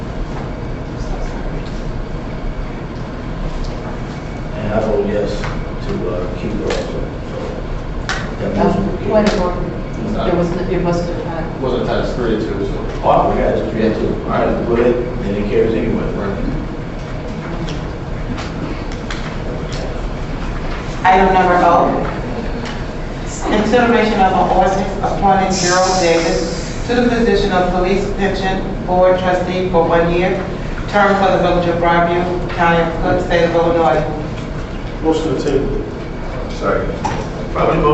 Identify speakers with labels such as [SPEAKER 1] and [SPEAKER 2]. [SPEAKER 1] yes to uh, Cuba also. So, that
[SPEAKER 2] Um,
[SPEAKER 1] motion for
[SPEAKER 2] Wait
[SPEAKER 1] Cuba.
[SPEAKER 2] a moment, there was, it wasn't a time.
[SPEAKER 3] Wasn't times three to it, so.
[SPEAKER 1] Oh, we got it, three, two. All right, well, it, then it carries anyway.
[SPEAKER 3] Right.
[SPEAKER 4] Item number O, consideration of an ordinance appointing Gerald Davis to the position of Police Pension Board Trustee for one year, term for the Village of Broadview, County of Cook, State of Illinois.
[SPEAKER 5] Motion to table.
[SPEAKER 1] Probably